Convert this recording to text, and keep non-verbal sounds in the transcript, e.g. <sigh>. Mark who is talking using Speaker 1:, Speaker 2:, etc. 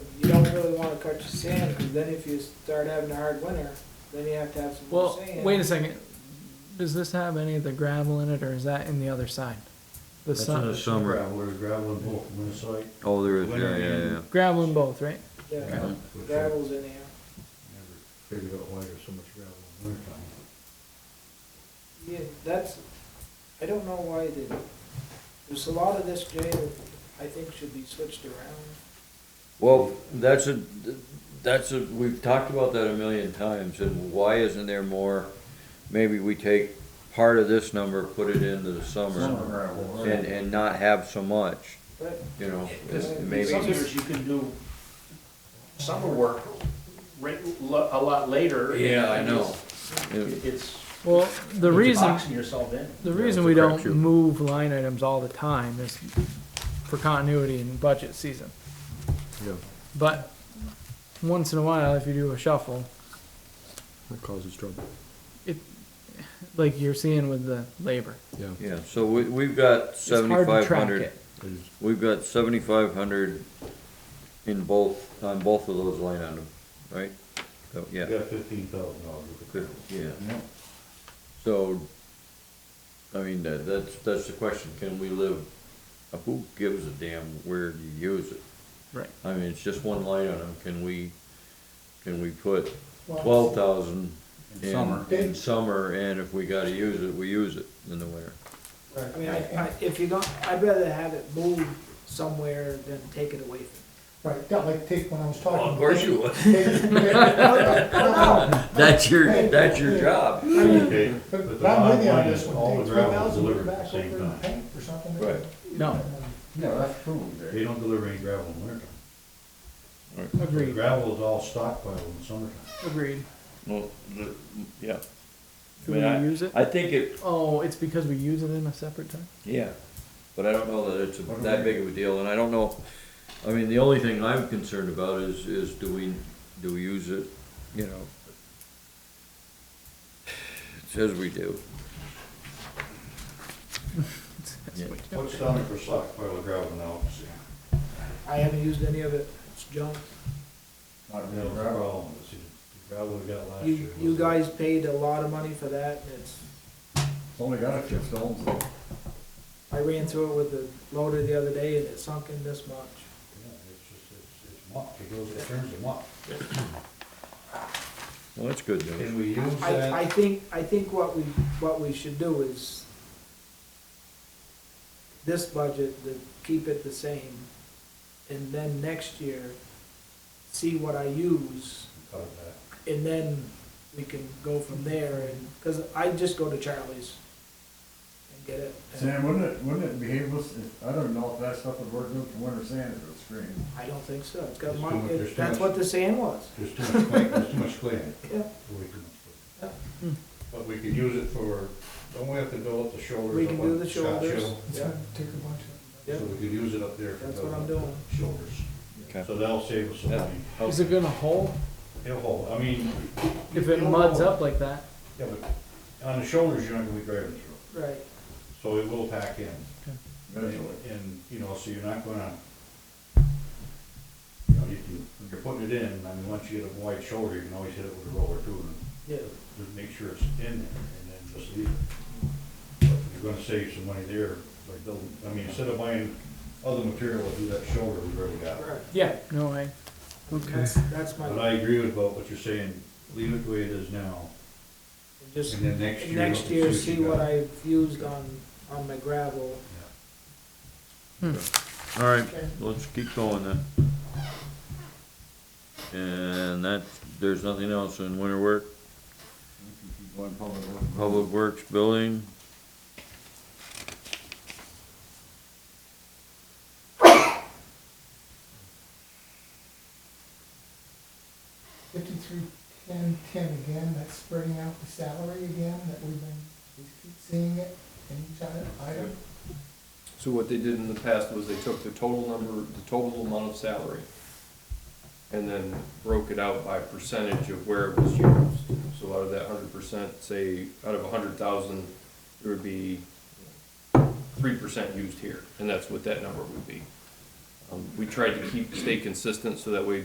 Speaker 1: don't really wanna cut your sand, because then if you start having a hard winter, then you have to have some more
Speaker 2: Well,
Speaker 1: sand.
Speaker 2: wait a second. Does this have any of the gravel in it, or is that in the other side? The
Speaker 3: That's not a
Speaker 2: sun,
Speaker 3: summer.
Speaker 4: Gravel, there's gravel and bulk from the site.
Speaker 3: Oh, there is, yeah,
Speaker 4: Winter
Speaker 3: yeah,
Speaker 4: in.
Speaker 3: yeah.
Speaker 2: gravel in both, right?
Speaker 1: Yeah,
Speaker 4: Which I Never
Speaker 1: gravel's in here.
Speaker 4: figured out why there's so much gravel in winter time.
Speaker 1: Yeah, that's, I don't know why they, there's a lot of this, Jay, that I think should be switched around.
Speaker 3: Well, that's a, that's a, we've talked about that a million times, and why isn't there more? Maybe we take part of this number, put it into the
Speaker 4: Summer
Speaker 3: summer,
Speaker 4: gravel.
Speaker 3: and, and not have so much,
Speaker 1: But
Speaker 3: you know,
Speaker 1: It's-
Speaker 3: it's
Speaker 5: In some
Speaker 3: maybe.
Speaker 5: years, you can do summer work right, lo- a lot later. It- It's.
Speaker 2: Well, the
Speaker 5: it's
Speaker 2: reason,
Speaker 5: Boxing yourself in.
Speaker 2: the
Speaker 3: it's
Speaker 2: reason
Speaker 3: a
Speaker 2: we don't
Speaker 3: crapshoot.
Speaker 2: move line items all the time is for continuity in budget season.
Speaker 3: Yeah.
Speaker 2: But once in a while, if you do a shuffle,
Speaker 6: That causes trouble,
Speaker 2: like you're seeing with the labor,
Speaker 6: yeah.
Speaker 3: Yeah, so we, we've got
Speaker 2: it's hard to
Speaker 3: seventy-five
Speaker 2: track
Speaker 3: hundred,
Speaker 2: it.
Speaker 6: it is.
Speaker 3: we've got seventy-five hundred in both, on both of those line items, right? So,
Speaker 4: You
Speaker 3: yeah,
Speaker 4: got fifteen thousand dollars worth
Speaker 3: good,
Speaker 4: of
Speaker 3: yeah.
Speaker 4: gravel.
Speaker 3: So, I mean, that, that's, that's the question, can we live, uh, who gives a damn where you use it?
Speaker 2: Right.
Speaker 3: I mean, it's just one line item, can we, can we put
Speaker 1: Well-
Speaker 3: twelve thousand in,
Speaker 4: summer.
Speaker 3: in summer, and if we gotta use it, we use it in the winter?
Speaker 1: I mean, I, I, if you don't, I'd rather have it moved somewhere than take it away from.
Speaker 7: Right, yeah, like take when I was talking. <laughs>
Speaker 3: would.
Speaker 7: Take- No,
Speaker 3: <laughs> That's your, that's your job.
Speaker 7: no, I mean,
Speaker 4: Okay,
Speaker 3: <laughs>
Speaker 7: But
Speaker 4: But
Speaker 7: but
Speaker 4: the
Speaker 7: I'm
Speaker 4: bottom
Speaker 7: with you on
Speaker 4: line
Speaker 7: this
Speaker 4: is
Speaker 7: one,
Speaker 4: all
Speaker 7: take
Speaker 4: the
Speaker 7: three
Speaker 4: gravel is
Speaker 7: thousand, put it
Speaker 4: delivered at
Speaker 7: back
Speaker 4: the same
Speaker 7: over
Speaker 4: time.
Speaker 7: and paint or something.
Speaker 3: Right.
Speaker 2: No.
Speaker 4: Yeah, that's true. They don't deliver any gravel in winter time.
Speaker 2: Agreed,
Speaker 4: Gravel is all stockpiled in summertime.
Speaker 2: agreed.
Speaker 3: Well, the, yeah.
Speaker 2: Do we use it?
Speaker 3: I think it,
Speaker 2: Oh, it's because we use it in a separate time?
Speaker 3: Yeah, but I don't know that it's a- that big of a deal, and I don't know, I mean, the only thing I'm concerned about is, is do we, do we use it, you know? It says we do. Yeah.
Speaker 4: What's down there for stockpile of gravel now?
Speaker 1: I haven't used any of it, it's junk.
Speaker 4: Not real gravel. It's the Gravel we got last year.
Speaker 1: You, you
Speaker 4: was-
Speaker 1: guys paid a lot of money for that, and it's,
Speaker 4: Only got a few stones. Yeah,
Speaker 1: I ran through it with the loader the other day, and it sunk in this much.
Speaker 4: It's just, it's, it's muck, it goes, it turns to muck.
Speaker 3: Well, that's good news.
Speaker 4: Can we use
Speaker 1: I, I
Speaker 4: that?
Speaker 1: think, I think what we, what we should do is this budget, to keep it the same, and then next year, see what I use,
Speaker 4: Cut it back.
Speaker 1: and then we can go from there, and, cause I just go to Charlie's and get it.
Speaker 8: Sam, wouldn't it, wouldn't it be able, if- I don't know if that stuff would work good for winter sand if it was screened.
Speaker 1: I don't think so, it's got
Speaker 4: Just
Speaker 1: my,
Speaker 4: do it
Speaker 1: it-
Speaker 4: yourself.
Speaker 1: that's what the sand was,
Speaker 4: There's too much clay, there's too much clay in it.
Speaker 1: <laughs> yeah, Hmm.
Speaker 4: Way too much clay. But we could use it for, don't we have to build up the shoulders?
Speaker 1: we
Speaker 4: up
Speaker 1: can
Speaker 4: on
Speaker 1: do the
Speaker 4: Scotch
Speaker 1: shoulders,
Speaker 4: Hill?
Speaker 1: yeah,
Speaker 7: Take a bunch
Speaker 1: yeah,
Speaker 4: So we could use it up there. for
Speaker 1: That's what
Speaker 4: building
Speaker 1: I'm
Speaker 4: up the Shoulders.
Speaker 3: Okay.
Speaker 4: So that'll save us some
Speaker 3: Yeah.
Speaker 4: money.
Speaker 2: Is it gonna hold
Speaker 4: It'll hold, I mean.
Speaker 2: if
Speaker 4: you
Speaker 2: it
Speaker 4: don't
Speaker 2: muds
Speaker 4: know.
Speaker 2: up like that?
Speaker 4: Yeah, but on the shoulders, you're not gonna be grabbing through.
Speaker 1: right.
Speaker 4: So it will pack in.
Speaker 8: Eventually.
Speaker 4: And, you know, so you're not gonna, you know, you can, when you're putting it in, I mean, once you get a wide shoulder, you can always hit it with a roller too,
Speaker 1: Yeah.
Speaker 4: and just make sure it's in there, and then just leave it. But You're gonna save some money there by building, I mean, instead of buying other material to do that shoulder, we've already got. it.
Speaker 2: Yeah, no, I,
Speaker 1: That's, that's my,
Speaker 4: But I agree with about what you're saying, leave it the way it is now,
Speaker 1: just.
Speaker 4: and then next year.
Speaker 1: next
Speaker 4: look
Speaker 1: year,
Speaker 4: and
Speaker 1: see
Speaker 4: you
Speaker 1: what
Speaker 4: got.
Speaker 1: I've used on, on my gravel.
Speaker 4: Yeah.
Speaker 3: All right, let's keep going then. And that, there's nothing else in winter work,
Speaker 8: Going public work.
Speaker 3: public works, building.
Speaker 7: Fifty-three, ten, ten again, that's spreading out the salary again, that we've been, we keep seeing it in each item- item.
Speaker 9: So what they did in the past was they took the total number, the total amount of salary, and then broke it out by percentage of where it was used. So out of that hundred percent, say, out of a hundred thousand, it would be three percent used here, and that's what that number would be. Um, We tried to keep, stay consistent, so that way